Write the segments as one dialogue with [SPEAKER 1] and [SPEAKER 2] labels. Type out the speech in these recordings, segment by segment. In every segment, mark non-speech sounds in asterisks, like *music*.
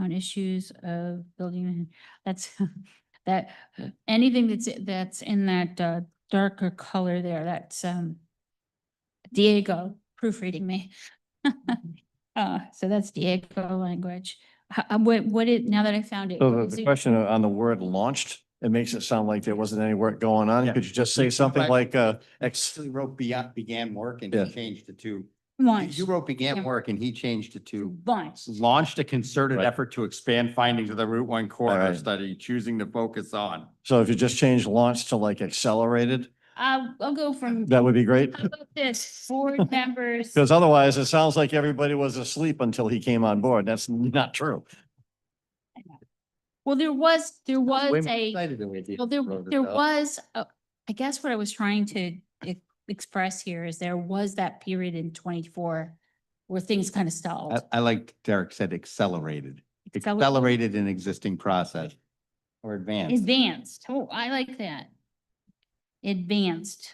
[SPEAKER 1] on issues of building, that's, *laughs* that, anything that's, that's in that uh, darker color there, that's, um, Diego proofreading me. *laughs* Uh, so that's Diego language. Ho- uh, what, what it, now that I found it.
[SPEAKER 2] So
[SPEAKER 1] what
[SPEAKER 2] the-
[SPEAKER 1] is
[SPEAKER 2] the
[SPEAKER 1] it-
[SPEAKER 2] question on the word launched, it makes it sound like there wasn't any work going on.
[SPEAKER 3] Yeah.
[SPEAKER 2] Could you just say something
[SPEAKER 3] Right.
[SPEAKER 2] like, uh, ex,
[SPEAKER 3] Actually wrote began, began work and
[SPEAKER 2] Yeah.
[SPEAKER 3] he changed it to, you-
[SPEAKER 1] Launch,
[SPEAKER 3] you wrote began
[SPEAKER 1] Yeah.
[SPEAKER 3] work and he changed it to
[SPEAKER 1] launch.
[SPEAKER 3] launched a concerted
[SPEAKER 2] Right.
[SPEAKER 3] effort to expand findings of the Route One corridor
[SPEAKER 2] Alright.
[SPEAKER 3] study, choosing to focus on.
[SPEAKER 2] so if you just change launch to like accelerated,
[SPEAKER 1] Uh, I'll go
[SPEAKER 2] *laughs*
[SPEAKER 1] from,
[SPEAKER 2] that would be great.
[SPEAKER 1] how about this,
[SPEAKER 2] *laughs*
[SPEAKER 1] board members,
[SPEAKER 2] Because otherwise, it sounds like everybody was asleep until he came on board. That's not true.
[SPEAKER 1] well, there was, there
[SPEAKER 3] Way
[SPEAKER 1] was
[SPEAKER 3] more
[SPEAKER 1] a.
[SPEAKER 3] excited than we did
[SPEAKER 1] Well, there,
[SPEAKER 3] wrote it
[SPEAKER 1] there
[SPEAKER 3] up.
[SPEAKER 1] was, a- I guess what I was trying to e- express here is there was that period in twenty-four where things kind of
[SPEAKER 3] I,
[SPEAKER 1] stalled.
[SPEAKER 3] I like Derek said accelerated,
[SPEAKER 1] Acceler-
[SPEAKER 3] accelerated an existing process or advanced.
[SPEAKER 1] Advanced. Oh, I like that. Advanced.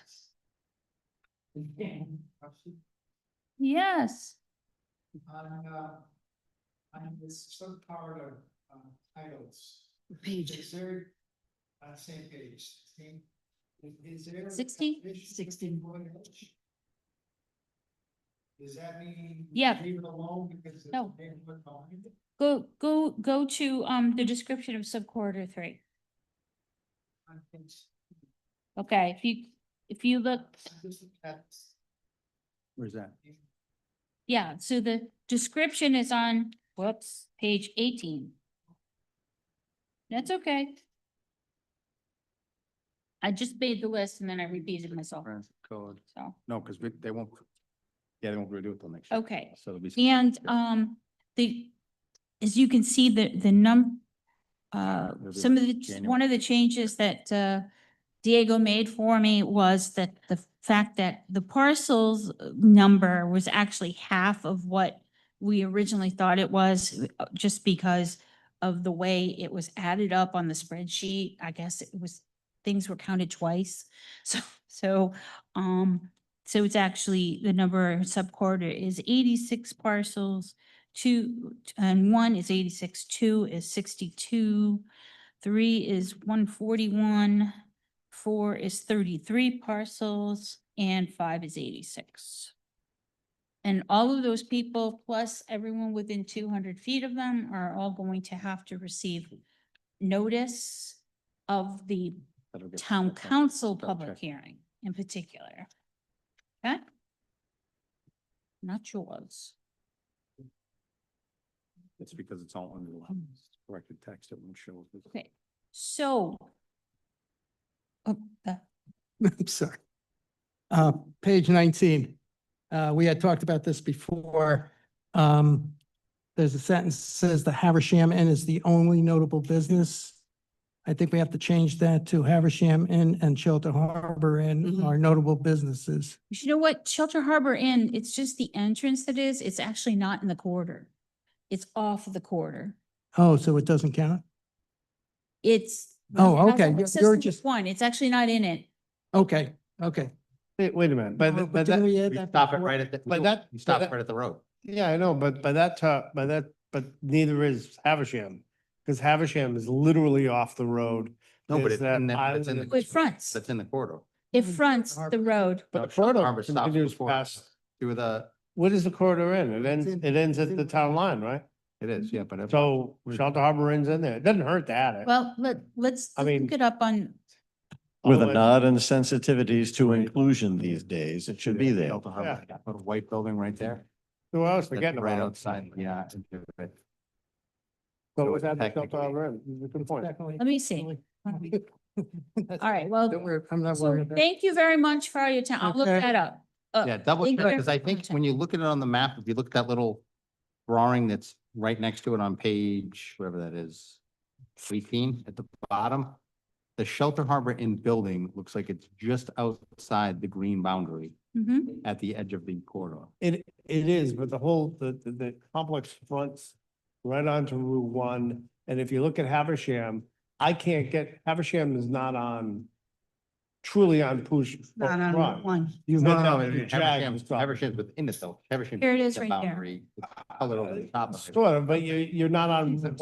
[SPEAKER 1] Yes.
[SPEAKER 4] on, uh, on this subpart of, um, titles. Is there, uh, same page, same, is- is there? a
[SPEAKER 1] 60?
[SPEAKER 4] definition of
[SPEAKER 1] 60.
[SPEAKER 4] neighborhood? Does that mean?
[SPEAKER 1] Yeah.
[SPEAKER 4] Leave it alone because. of
[SPEAKER 1] No.
[SPEAKER 4] the neighborhood behind it?
[SPEAKER 1] Go, go, go to, um, the description of subquarter three.
[SPEAKER 4] I think so.
[SPEAKER 1] Okay, if you, if you look,
[SPEAKER 4] I'm just looking at this.
[SPEAKER 3] Where's that?
[SPEAKER 1] yeah, so the description is on, whoops, page eighteen. That's okay. I just made the list and then I repeated myself,
[SPEAKER 3] Transit Code.
[SPEAKER 1] so,
[SPEAKER 3] No, because we, they won't, yeah, they won't redo it till next year.
[SPEAKER 1] okay.
[SPEAKER 3] So it'll be.
[SPEAKER 1] And, um, the, as you can see, the, the num, uh,
[SPEAKER 3] It'll be
[SPEAKER 1] some of the,
[SPEAKER 3] January.
[SPEAKER 1] one of the changes that, uh, Diego made for me was that the fact that the parcels uh, number was actually half of what we originally thought it was, uh, just because of the way it was added up on the spreadsheet. I guess it was, things were counted twice. *laughs* So, so, um, so it's actually, the number subquarter is eighty-six parcels, two, and one is eighty-six, two is sixty-two, three is one forty-one, four is thirty-three parcels, and five is eighty-six. And all of those people, plus everyone within two hundred feet of them, are all going to have to receive notice of the
[SPEAKER 3] that'll get-
[SPEAKER 1] town
[SPEAKER 3] that's all.
[SPEAKER 1] council
[SPEAKER 3] Spell
[SPEAKER 1] public
[SPEAKER 3] check.
[SPEAKER 1] hearing in particular. Okay? Not yours.
[SPEAKER 3] It's because it's all under the law. It's corrected text, it won't show.
[SPEAKER 1] Okay. So. Oh, uh,
[SPEAKER 5] *laughs* I'm sorry. Uh, page nineteen, uh, we had talked about this before. Um, there's a sentence that says the Haversham Inn is the only notable business. I think we have to change that to Haversham Inn and Shelter Harbor Inn
[SPEAKER 1] Mm-hmm.
[SPEAKER 6] Mhm.
[SPEAKER 5] are notable businesses.
[SPEAKER 1] You know what? Shelter Harbor Inn, it's just the entrance that is, it's actually not in the corridor. It's off of the corridor.
[SPEAKER 5] Oh, so it doesn't count?
[SPEAKER 1] It's.
[SPEAKER 5] Oh,
[SPEAKER 1] it has
[SPEAKER 5] okay,
[SPEAKER 1] a-
[SPEAKER 5] you're-
[SPEAKER 1] it says
[SPEAKER 5] you're
[SPEAKER 1] Route
[SPEAKER 5] just-
[SPEAKER 1] One, it's actually not in it.
[SPEAKER 5] Okay, okay.
[SPEAKER 7] Wait, wait a minute,
[SPEAKER 3] Oh,
[SPEAKER 7] by,
[SPEAKER 5] No,
[SPEAKER 7] th- by
[SPEAKER 5] didn't
[SPEAKER 7] that,
[SPEAKER 5] we add
[SPEAKER 3] We
[SPEAKER 5] that
[SPEAKER 3] stop it
[SPEAKER 5] before?
[SPEAKER 3] right at, the- we
[SPEAKER 7] But
[SPEAKER 3] don't-
[SPEAKER 7] that-
[SPEAKER 3] we
[SPEAKER 7] but
[SPEAKER 3] stop
[SPEAKER 7] that-
[SPEAKER 3] right at the road.
[SPEAKER 7] yeah, I know, but by that top, by that, but neither is Havisham. Because Havisham is literally off the road.
[SPEAKER 3] No, but
[SPEAKER 7] There's
[SPEAKER 3] it's
[SPEAKER 7] that
[SPEAKER 3] in the- but it's in
[SPEAKER 7] island-
[SPEAKER 3] the-
[SPEAKER 1] It fronts,
[SPEAKER 3] That's in the corridor.
[SPEAKER 1] it fronts the road.
[SPEAKER 3] No,
[SPEAKER 7] But the
[SPEAKER 3] Shelter
[SPEAKER 7] corridor
[SPEAKER 3] Harbor stops
[SPEAKER 7] continues
[SPEAKER 3] before.
[SPEAKER 7] past,
[SPEAKER 3] To the,
[SPEAKER 7] what is the corridor in? It ends,
[SPEAKER 5] in-
[SPEAKER 7] it ends
[SPEAKER 5] it's
[SPEAKER 7] at
[SPEAKER 5] in-
[SPEAKER 7] the town line, right?
[SPEAKER 3] it is, yeah, but. it-
[SPEAKER 7] So Shelter Harbor ends in there. It doesn't hurt that.
[SPEAKER 1] Well, let, let's
[SPEAKER 7] I mean-
[SPEAKER 1] look it up on,
[SPEAKER 2] With a
[SPEAKER 7] Otherwise-
[SPEAKER 2] nod and sensitivities to
[SPEAKER 3] Right.
[SPEAKER 2] inclusion these days, it should be
[SPEAKER 3] Yeah,
[SPEAKER 2] there.
[SPEAKER 3] Shelter Harbor, that Little white building right there.
[SPEAKER 7] Who else
[SPEAKER 3] That's
[SPEAKER 7] forgetting
[SPEAKER 3] Right
[SPEAKER 7] about it?
[SPEAKER 3] outside, yeah. it's in there.
[SPEAKER 7] So
[SPEAKER 3] So
[SPEAKER 7] what's that, Shelter
[SPEAKER 3] technically-
[SPEAKER 7] Harbor Inn? It's a Good point.
[SPEAKER 5] Definitely.
[SPEAKER 1] let me see.
[SPEAKER 5] That's-
[SPEAKER 1] All right, well,
[SPEAKER 5] *laughs* Don't worry, I'm not worried.
[SPEAKER 1] so
[SPEAKER 5] about it.
[SPEAKER 1] thank you very much for your time. I'll look
[SPEAKER 5] Okay.
[SPEAKER 1] that up. Uh,
[SPEAKER 3] Yeah, double
[SPEAKER 1] thank
[SPEAKER 3] check,
[SPEAKER 1] you very
[SPEAKER 3] because I think
[SPEAKER 1] much.
[SPEAKER 3] when you look at it on the map, if you look at that little drawing that's right next to it on page, whatever that is, eighteen at the bottom, the Shelter Harbor Inn building looks like it's just outside the green boundary
[SPEAKER 1] Mhm.
[SPEAKER 3] at the edge of the corridor.
[SPEAKER 7] It, it is, but the whole, the, the, the complex fronts right onto Route One. And if you look at Havisham, I can't get, Havisham is not on truly on Poosh.
[SPEAKER 6] not on Route one.
[SPEAKER 7] You've
[SPEAKER 3] No,
[SPEAKER 7] got
[SPEAKER 3] no,
[SPEAKER 7] that
[SPEAKER 3] no,
[SPEAKER 7] with your
[SPEAKER 3] Haversham's,
[SPEAKER 7] Jags property.
[SPEAKER 3] Haversham's within it though. Haversham
[SPEAKER 1] Here it
[SPEAKER 3] is
[SPEAKER 1] is
[SPEAKER 3] the
[SPEAKER 1] right there.
[SPEAKER 3] boundary, the Color over the top of it.
[SPEAKER 7] Sort of, but you, you're not on